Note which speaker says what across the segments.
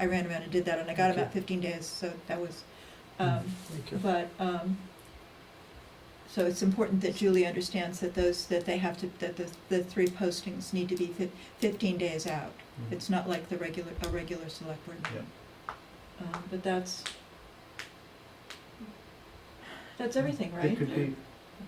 Speaker 1: I ran around and did that, and I got about
Speaker 2: Okay.
Speaker 1: fifteen days, so that was,
Speaker 2: Mm,
Speaker 1: um,
Speaker 2: Thank you.
Speaker 1: but, um, so it's important that Julie understands that those, that they have to, that the, the three postings need to be fif- fifteen days out.
Speaker 2: Mhm.
Speaker 1: It's not like the regular, a regular select board meeting. Um, but that's, that's everything, right?
Speaker 2: It could be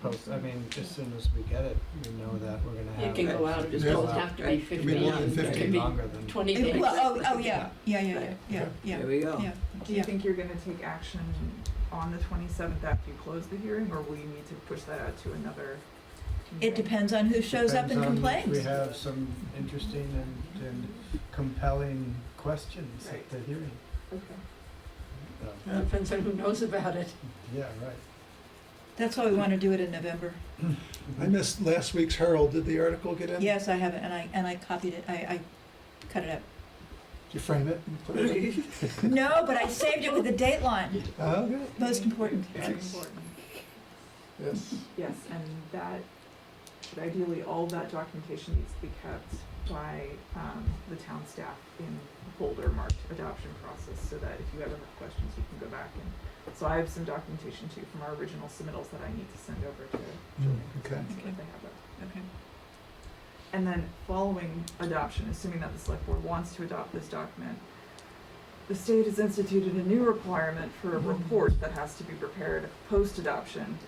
Speaker 2: post, I mean, as soon as we get it, we know that we're gonna
Speaker 3: It
Speaker 2: have.
Speaker 3: can go out, it just
Speaker 4: Yeah.
Speaker 3: doesn't have to be
Speaker 4: It'd be
Speaker 3: fifteen,
Speaker 4: more than
Speaker 3: it could
Speaker 4: 15.
Speaker 3: be
Speaker 2: Longer than.
Speaker 3: twenty
Speaker 1: Eh,
Speaker 3: days.
Speaker 1: Well, oh, oh, yeah, yeah, yeah, yeah,
Speaker 3: Right.
Speaker 1: yeah, yeah,
Speaker 5: There we
Speaker 3: Oh.
Speaker 5: go.
Speaker 1: yeah.
Speaker 6: Do you
Speaker 1: Yeah.
Speaker 6: think you're gonna take action on the twenty-seventh after you close the hearing, or will you need to push that out to another?
Speaker 1: It
Speaker 6: meeting?
Speaker 1: depends on who shows up and
Speaker 2: Depends on- We
Speaker 1: complains.
Speaker 2: have some interesting and, and compelling questions at
Speaker 6: Right.
Speaker 2: the hearing.
Speaker 6: Okay.
Speaker 2: So,
Speaker 3: Well, Depends on who knows about it.
Speaker 2: Yeah, right.
Speaker 1: That's why we want to do it in November.
Speaker 4: I missed last week's Herald. Did the article get in?
Speaker 1: Yes, I have it, and I, and I copied it, I, I cut it up.
Speaker 4: Did you frame it and put it in?
Speaker 1: No, but I saved it with the date line,
Speaker 4: Oh, okay.
Speaker 1: most important.
Speaker 6: Very important.
Speaker 4: Yes.
Speaker 6: Yes, and that, but ideally, all that documentation needs to be kept by, um, the town staff in a folder marked adoption process, so that if you ever have questions, you can go back and, so I have some documentation too from our original submittals that I need to send over to
Speaker 2: Hmm.
Speaker 6: Julie,
Speaker 4: Okay.
Speaker 6: so that they have that.
Speaker 1: Okay.
Speaker 6: And then following adoption, assuming that the select board wants to adopt this document, the state has instituted a new requirement for a
Speaker 1: Mm-hmm.
Speaker 6: report that has to be prepared post-adoption.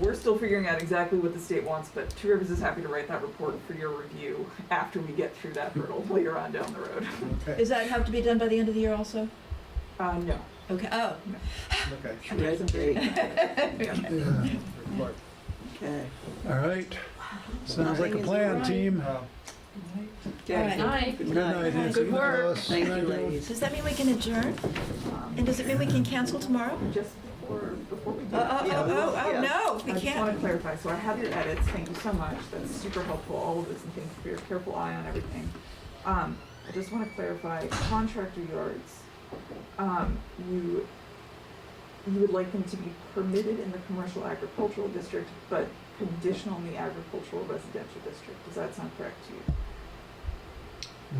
Speaker 6: We're still figuring out exactly what the state wants, but Two Rivers is happy to write that report for your review after we get through that hurdle later on down the road.
Speaker 2: Okay,
Speaker 1: Does that have to be done by the end of the year also?
Speaker 6: Uh, no.
Speaker 1: Okay, oh,
Speaker 2: okay.
Speaker 5: Red three,
Speaker 2: Yeah, report.
Speaker 5: okay.
Speaker 4: All right. Sounds like a
Speaker 5: Nothing is
Speaker 4: plan,
Speaker 5: right.
Speaker 4: team.
Speaker 2: Uh,
Speaker 1: All right.
Speaker 5: Okay.
Speaker 3: Aye.
Speaker 5: Good
Speaker 4: Good
Speaker 5: night.
Speaker 4: night, Nancy.
Speaker 3: Good work.
Speaker 4: Alice.
Speaker 5: Thank you,
Speaker 4: Thank you.
Speaker 5: ladies.
Speaker 1: does that mean we can adjourn?
Speaker 6: Um,
Speaker 1: And does it mean we can cancel tomorrow?
Speaker 6: Just before, before we do.
Speaker 1: Oh, oh,
Speaker 6: yeah,
Speaker 1: oh, oh, oh,
Speaker 6: yeah.
Speaker 1: no,
Speaker 6: I
Speaker 1: we
Speaker 6: just want
Speaker 1: can't.
Speaker 6: to clarify, so I have your edits, thank you so much, that's super helpful, all of this, and thanks for your careful eye on everything. Um, I just want to clarify, contractor yards, um, you, you would like them to be permitted in the commercial agricultural district, but conditional in the agricultural residential district, does that sound correct to you?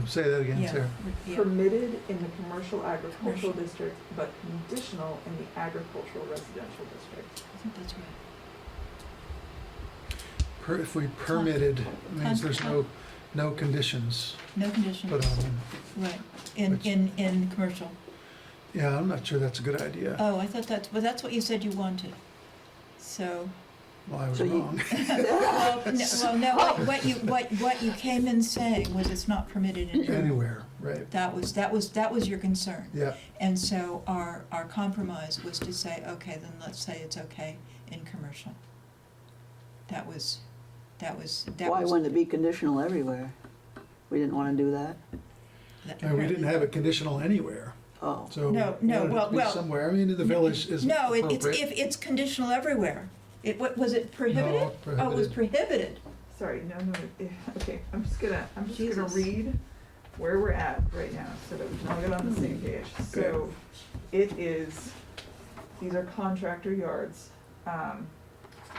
Speaker 4: Say that again,
Speaker 1: Yeah,
Speaker 4: Sarah.
Speaker 1: yeah.
Speaker 6: Permitted in the commercial agricultural district, but conditional in the agricultural residential district.
Speaker 1: I think that's right.
Speaker 4: Per- If we permitted, it means there's no, no conditions
Speaker 1: No
Speaker 4: put
Speaker 1: conditions,
Speaker 4: on them.
Speaker 1: right, in,
Speaker 4: um, Which-
Speaker 1: in, in commercial.
Speaker 4: Yeah, I'm not sure that's a good idea.
Speaker 1: Oh, I thought that's, well, that's what you said you wanted. So,
Speaker 4: Well, I was
Speaker 5: So you-
Speaker 4: wrong.
Speaker 1: well, no, well, no, what- what you, what, what you came in saying was it's not permitted in.
Speaker 4: Anywhere, right.
Speaker 1: That was, that was, that was your concern.
Speaker 4: Yeah,
Speaker 1: And so our, our compromise was to say, okay, then let's say it's okay in commercial. That was, that was, that
Speaker 5: Why
Speaker 1: was.
Speaker 5: wouldn't it be conditional everywhere? We didn't want to do that?
Speaker 1: that-
Speaker 4: and we didn't have it conditional anywhere,
Speaker 5: Oh,
Speaker 4: so.
Speaker 1: No, no,
Speaker 4: we wanted it to
Speaker 1: well,
Speaker 4: be
Speaker 1: well-
Speaker 4: Somewhere, I mean, the village is
Speaker 1: No, it- it's,
Speaker 4: appropriate.
Speaker 1: if, it's conditional everywhere. It, what, was it prohibited? Oh, it was prohibited.
Speaker 6: Sorry, no, no, eh, okay, I'm just gonna, I'm just gonna
Speaker 1: Jesus.
Speaker 6: read where we're at right now, so that we can all get on the same page. So, it is, these are contractor yards, um,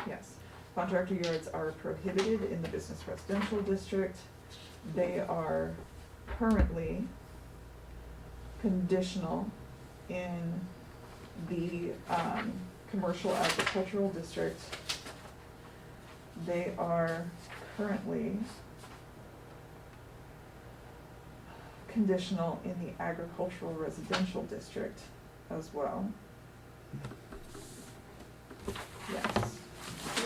Speaker 6: yes. Contractor yards are prohibited in the business residential district. They are currently conditional in the, um, commercial agricultural district. They are currently conditional in the agricultural residential district as well. Yes.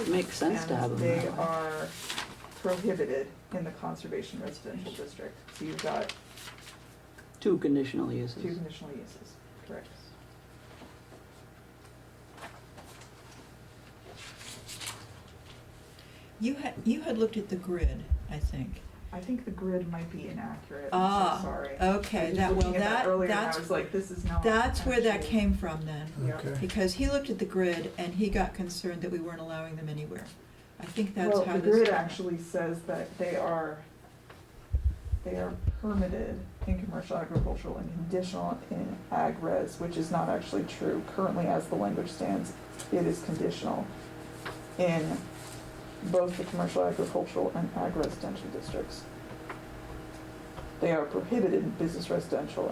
Speaker 5: it makes sense to have
Speaker 6: And
Speaker 5: them
Speaker 6: they
Speaker 5: that way.
Speaker 6: are prohibited in the conservation residential district. So you've got
Speaker 5: Two conditional
Speaker 6: two
Speaker 5: uses.
Speaker 6: conditional uses, correct?
Speaker 1: You had, you had looked at the grid, I think.
Speaker 6: I think the grid might be inaccurate, I'm
Speaker 1: Ah,
Speaker 6: so sorry. I
Speaker 1: Okay,
Speaker 6: was
Speaker 1: that, well,
Speaker 6: looking at that
Speaker 1: that,
Speaker 6: earlier and
Speaker 1: that's,
Speaker 6: I was like, this is not
Speaker 1: that's where that
Speaker 6: actually-
Speaker 1: came from then.
Speaker 6: Yeah.
Speaker 4: Okay,
Speaker 1: Because he looked at the grid and he got concerned that we weren't allowing them anywhere. I think that's
Speaker 6: Well,
Speaker 1: how
Speaker 6: the
Speaker 1: this.
Speaker 6: grid actually says that they are, they are permitted in commercial agricultural and conditional in ag res, which is not actually true. Currently, as the language stands, it is conditional in both the commercial agricultural and ag residential districts. They are prohibited in business residential